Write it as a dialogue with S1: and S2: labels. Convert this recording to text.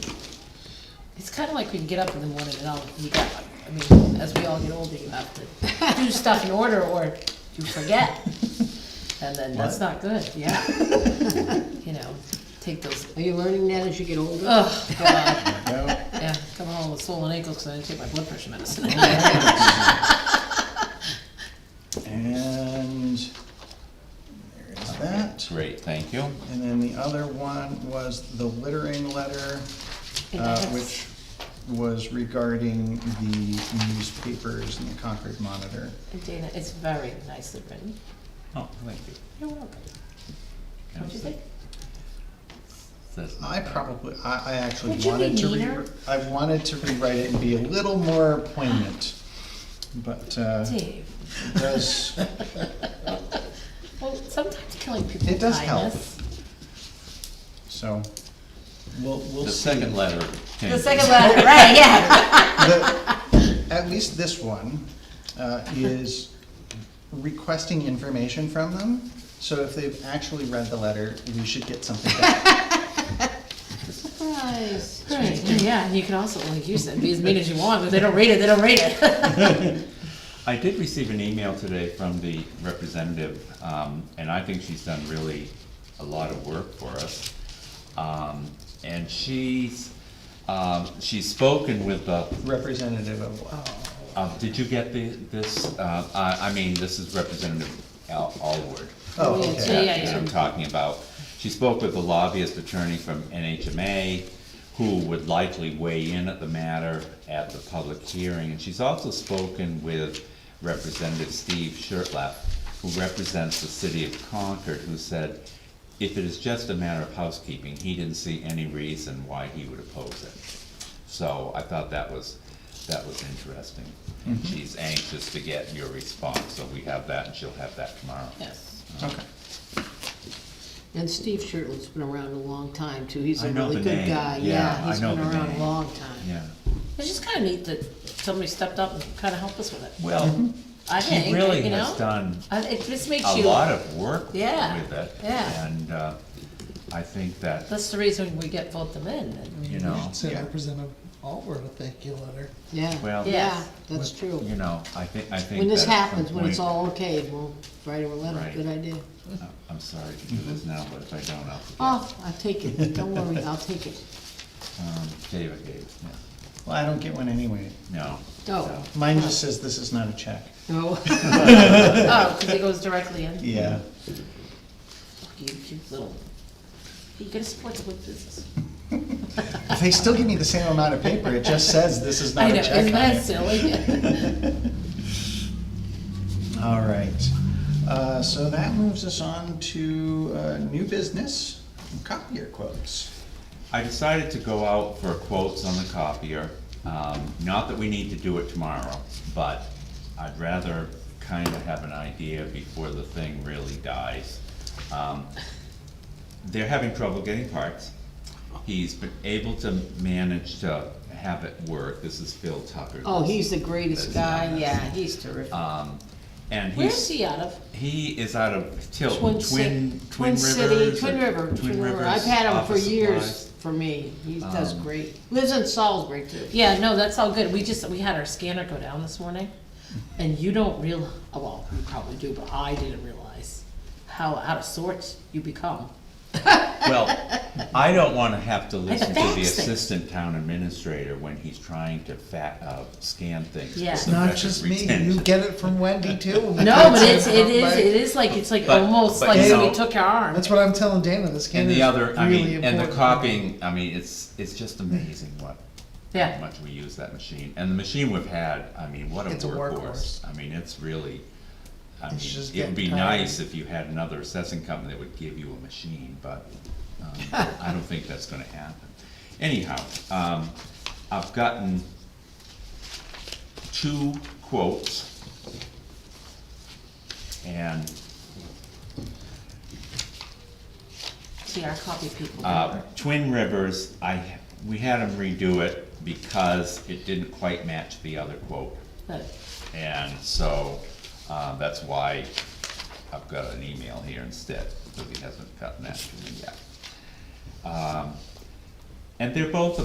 S1: It's kind of like we can get up in the morning and all, you got, I mean, as we all get older, you have to do stuff in order or you forget. And then that's not good, yeah. You know, take those,
S2: Are you learning that as you get older?
S1: oh, God,
S3: Yeah,
S1: yeah, come home with swollen ankles because I didn't take my blood pressure medicine.
S3: And there is that.
S4: Great, thank you.
S3: And then the other one was the littering letter, uh, which was regarding the newspapers and the Concord Monitor.
S1: Dana, it's very nicely written.
S4: Oh, thank you.
S1: You're welcome. What'd you think?
S4: That's not
S3: I
S4: bad.
S3: probably, I, I actually
S1: Would you be
S3: wanted to re-
S1: meaner?
S3: I wanted to rewrite it and be a little more poignant, but, uh,
S1: Dave,
S3: it does,
S1: well, sometimes killing people
S3: It
S1: with
S3: does help.
S1: kindness.
S3: so, we'll, we'll see.
S4: The second letter.
S1: The
S4: changes.
S1: second letter, right, yeah.
S3: The- At least this one uh, is requesting information from them, so if they've actually read the letter, we should get something back.
S2: Surprise.
S1: Right, yeah, and you can also, like you said, be as mean as you want, but if they don't read it, they don't read it.
S4: I did receive an email today from the representative, um, and I think she's done really a lot of work for us. Um, and she's, um, she's spoken with the,
S3: Representative of what?
S4: uh, did you get the, this, uh, I, I mean, this is Representative Al, Alward.
S3: Oh,
S1: Yeah, so
S3: okay.
S1: yeah,
S4: that I'm
S1: yeah.
S4: talking about. She spoke with the lobbyist attorney from NHMA, who would likely weigh in at the matter at the public hearing. And she's also spoken with Representative Steve Shirtlaff, who represents the city of Concord, who said, if it is just a matter of housekeeping, he didn't see any reason why he would oppose it. So I thought that was, that was interesting.
S1: Mm-hmm.
S4: And she's anxious to get your response, so we have that, and she'll have that tomorrow.
S1: Yes.
S3: Okay.
S2: And Steve Shirtliff's been around a long time too. He's
S4: I
S2: a
S4: know
S2: really
S4: the
S2: good
S4: name.
S2: guy.
S4: Yeah,
S2: Yeah,
S4: I
S2: he's
S4: know
S2: been
S4: the
S2: around a
S4: name.
S2: long time.
S4: Yeah.
S1: It's just kinda neat that somebody stepped up and kinda helped us with it.
S2: Mm-hmm.
S4: Well,
S1: I
S4: he
S1: think,
S4: really
S1: you
S4: has
S1: know?
S4: done
S1: I- It just makes
S4: a
S1: you,
S4: lot of work with
S1: Yeah,
S4: it.
S1: yeah.
S4: And uh, I think that,
S1: that's the reason we get both them in. and-
S4: you know,
S5: Send
S3: Yeah.
S5: Representative Altward a thank you letter.
S2: Yeah,
S4: well,
S1: Yeah.
S2: yeah, that's true.
S4: you know, I think, I think.
S2: When this
S4: that at some
S2: happens, when it's
S4: point-
S2: all okay, we'll write him a letter.
S4: Right.
S2: Good idea.
S4: I'm sorry to do this now, but if I don't, I'll forget.
S2: Oh, I'll take it. Don't worry, I'll take it. Oh.
S4: Um, David gave, yeah.
S3: Well, I don't get one anyway.
S4: no.
S2: Oh.
S4: no.
S3: Mine just says this is not a check.
S2: No,
S1: Oh, cause it goes directly in,
S3: Yeah.
S1: you cute little, you gotta support the wood business.
S3: If they still give me the same amount of paper, it just says this is
S1: I
S3: not
S1: know,
S3: a check.
S1: isn't
S3: on
S1: that
S3: it.
S1: silly?
S3: All right, uh, so that moves us on to, uh, new business, copier quotes.
S4: I decided to go out for quotes on the copier. Um, not that we need to do it tomorrow, but I'd rather kind of have an idea before the thing really dies. Um, they're having trouble getting parts. He's been able to manage to have it work. This is Phil Tucker.
S2: oh, he's the greatest guy. Yeah, he's terrific.
S4: Um, and he's.
S1: Where's he out of?
S4: He is out of Tilton,
S2: Twin Ci-
S4: Twin, Twin
S2: Twin
S4: Rivers.
S2: City, Twin
S4: or
S2: River, Twin River.
S4: Rivers
S2: I've had him for
S4: Office
S2: years,
S4: Supplies.
S2: for me. He does
S4: Um,
S2: great. Lives in Salisbury too.
S1: Yeah, no, that's all good. We just, we had our scanner go down this morning, and you don't real, oh, well, you probably do, but I didn't realize how out of sorts you become.
S4: Well, I don't wanna have to listen to
S1: fax
S4: the
S1: thing.
S4: assistant town administrator when he's trying to fa- uh, scan things.
S1: Yeah. It's
S4: for record retention.
S3: get it from Wendy too.
S1: No, but it's, it is, it is like, it's like
S4: But-
S1: almost
S4: but
S1: like
S4: you
S1: somebody
S4: know-
S1: took your arm.
S5: That's what I'm telling Dana, this
S4: And
S5: kid is
S4: the other, I
S5: really
S4: mean, and the
S5: important.
S4: copying, I mean, it's, it's just amazing what, how
S1: Yeah,
S4: much we use that machine. And the machine we've had, I mean, what a
S5: It's a
S4: workhorse.
S5: workhorse.
S4: I mean, it's really, I mean,
S5: It's just
S4: it would be
S5: getting tired.
S4: nice if you had another assessing company that would give you a machine, but, um, I don't think that's gonna happen. Anyhow, um, I've gotten two quotes. And,
S1: see, our copy people.
S4: uh, Twin Rivers, I, we had them redo it because it didn't quite match the other quote.
S1: But
S4: And so, uh, that's why I've got an email here instead, because he hasn't gotten that to me yet. Um, And they're both